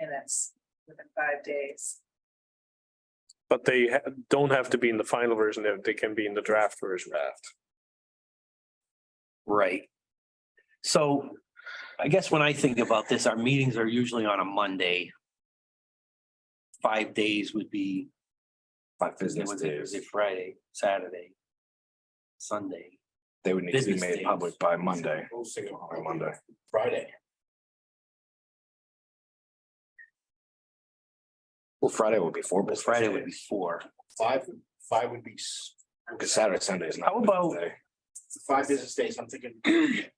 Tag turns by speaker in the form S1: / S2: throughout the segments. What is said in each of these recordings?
S1: comments within five days.
S2: But they ha- don't have to be in the final version, they- they can be in the draft version. Draft.
S3: Right. So I guess when I think about this, our meetings are usually on a Monday. Five days would be
S4: Five business
S3: Wednesday,
S4: days,
S3: Thursday, Friday, Saturday, Sunday.
S4: they would need to be
S3: business
S4: made
S3: days.
S4: public by Monday,
S5: Posting
S4: by Monday.
S5: Friday.
S4: Well, Friday would be four
S3: Well,
S4: business.
S3: Friday would be
S4: days,
S3: four.
S5: Five, five would be, s-
S4: Because Saturday, Sunday is not.
S3: How
S4: a business
S3: about-
S4: day.
S5: five business days, I'm thinking.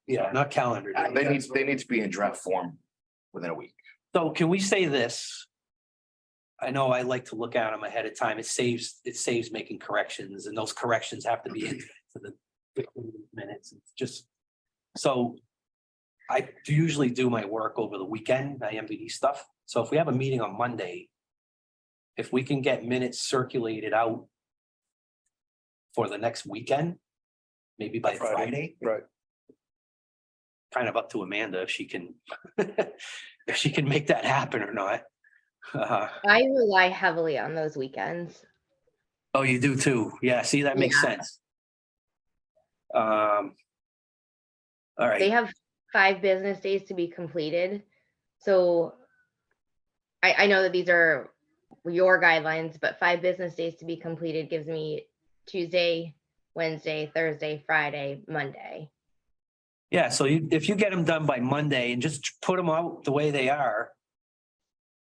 S3: Yeah, not calendar.
S5: I-
S4: They need, they need to be in draft form within a week.
S3: So can we say this? I know I like to look at them ahead of time. It saves, it saves making corrections and those corrections have to be in for the minutes, It's just. So I do usually do my work over the weekend, my MVD stuff. So if we have a meeting on Monday, if we can get minutes circulated out for the next weekend, maybe by
S2: Friday.
S3: Friday
S2: Right.
S3: kind of up to Amanda if she can, if she can make that happen or not. Uh,
S6: I rely heavily on those weekends.
S3: Oh, you do too. Yeah, see, that makes sense. Um. All right,
S6: They have five business days to be completed. So I, I know that these are your guidelines, but five business days to be completed gives me Tuesday, Wednesday, Thursday, Friday, Monday.
S3: yeah, so you, if you get them done by Monday and just put them out the way they are.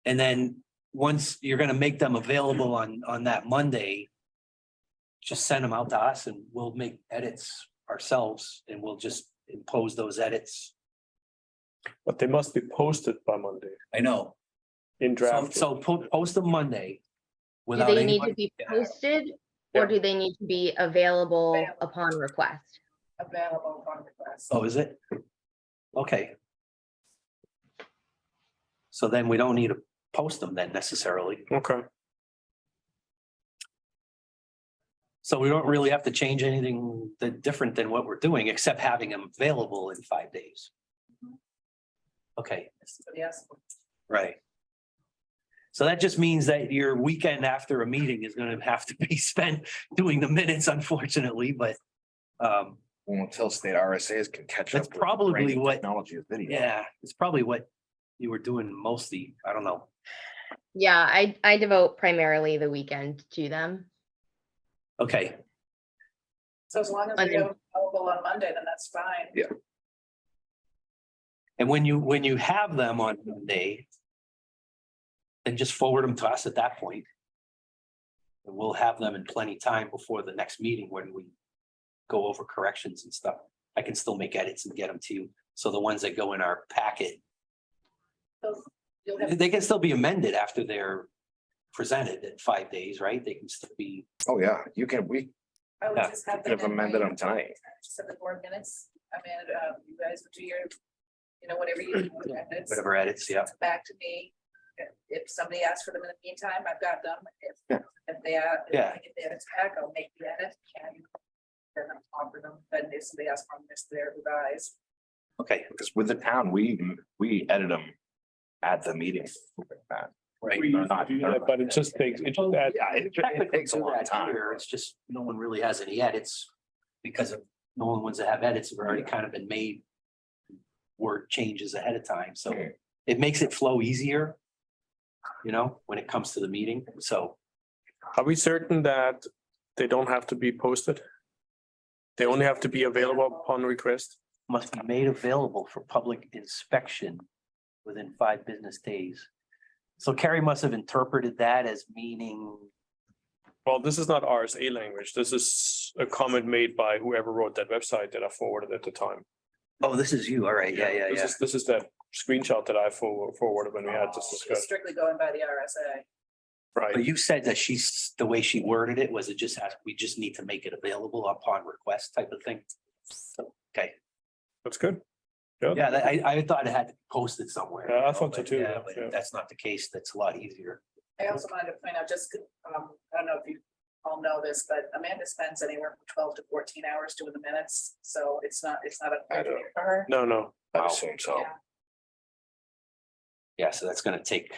S3: And then, once you're gonna make them available on, on that Monday. Just send them out to us and we'll make edits ourselves and we'll just impose those edits.
S2: But they must be posted by Monday
S5: I know.
S2: in
S3: So,
S2: draft.
S3: so po- post them Monday.
S6: Do
S3: Without
S6: they need to
S3: anybody,
S6: be
S3: Yeah.
S6: posted or
S2: Yeah.
S6: do they need to be available upon request?
S1: Available upon request.
S3: oh, is it? Okay. So then we don't need to post them then necessarily.
S2: Okay,
S3: So we don't really have to change anything that different than what we're doing, except having them available in five days. Okay,
S1: Somebody else.
S3: right. So that just means that your weekend after a meeting is gonna have to be spent doing the minutes unfortunately, but um,
S4: Well, Until state RSAs can catch up.
S3: That's
S4: with the
S3: probably
S4: great
S3: what-
S4: Technology of video.
S3: yeah, it's probably what you were doing mostly. I don't know.
S6: Yeah, I, I devote primarily the weekend to them.
S3: Okay,
S1: So as long as
S6: Monday.
S1: they're available on Monday, then that's fine.
S3: And when you, when you have them on Monday, then just forward them to us at that point. And we'll have them in plenty time before the next meeting when we go over corrections and stuff. I can still make edits and get them to you. So the ones that go in our packet,
S1: So You'll have,
S3: they can still be amended after they're presented in five days, right? They can still be,
S4: Oh, yeah, you can, we
S1: I would
S3: Yeah,
S1: just have.
S4: could have
S1: them in
S4: amended
S1: writing.
S4: them tonight.
S1: Just have the board minutes. I mean, um, you guys would do your, you know, whatever you. do with the minutes.
S3: whatever edits, yeah.
S1: Back to me. If- If somebody asks for them in the meantime, I've got them. If, if they are. if
S3: Yeah.
S1: I get the edits back, I'll make the edit and then I'll offer them. Then if somebody asks for them, it's their revised.
S3: Okay,
S4: Because with the town, we, we edit them at the meeting.
S3: right.
S2: We used to do that, but it just takes, it just adds-
S4: Yeah, it- it takes a
S3: do
S4: long
S3: that
S4: time.
S3: here, It's just, no one really has any edits because of, no one wants to have edits have already kind of been made. Word changes ahead of time, so
S4: Mm.
S3: it makes it flow easier. You know, when it comes to the meeting, so
S2: are we certain that they don't have to be posted? They only have to be available upon request?
S3: must be made available for public inspection within five business days. So Carrie must have interpreted that as meaning,
S2: Well, this is not RSA language. This is a comment made by whoever wrote that website that I forwarded at the time.
S3: oh, this is you, all right, yeah, yeah,
S2: This
S3: yeah.
S2: is, this is that screenshot that I forward- forwarded when we had this
S1: Just
S2: discussion,
S1: Oh, Strictly going by the RSA.
S2: right?
S3: But you said that she's, the way she worded it was it just has, we just need to make it available upon request type of thing. Okay,
S2: That's good.
S3: yeah, that- I, I thought it had to be posted somewhere.
S2: Yeah, I
S3: you know,
S2: thought so
S3: but
S2: too,
S3: yeah,
S2: yeah,
S3: but
S2: yeah.
S3: if That's not the case. That's a lot easier.
S1: I also wanted to point out, just, um, I don't know if you all know this, but Amanda spends anywhere from twelve to fourteen hours doing the minutes, so it's not, it's not a.
S4: I
S1: burden
S4: don't-
S1: For her.
S2: No, no.
S4: I assume so.
S1: Yeah.
S3: Yeah, so that's gonna take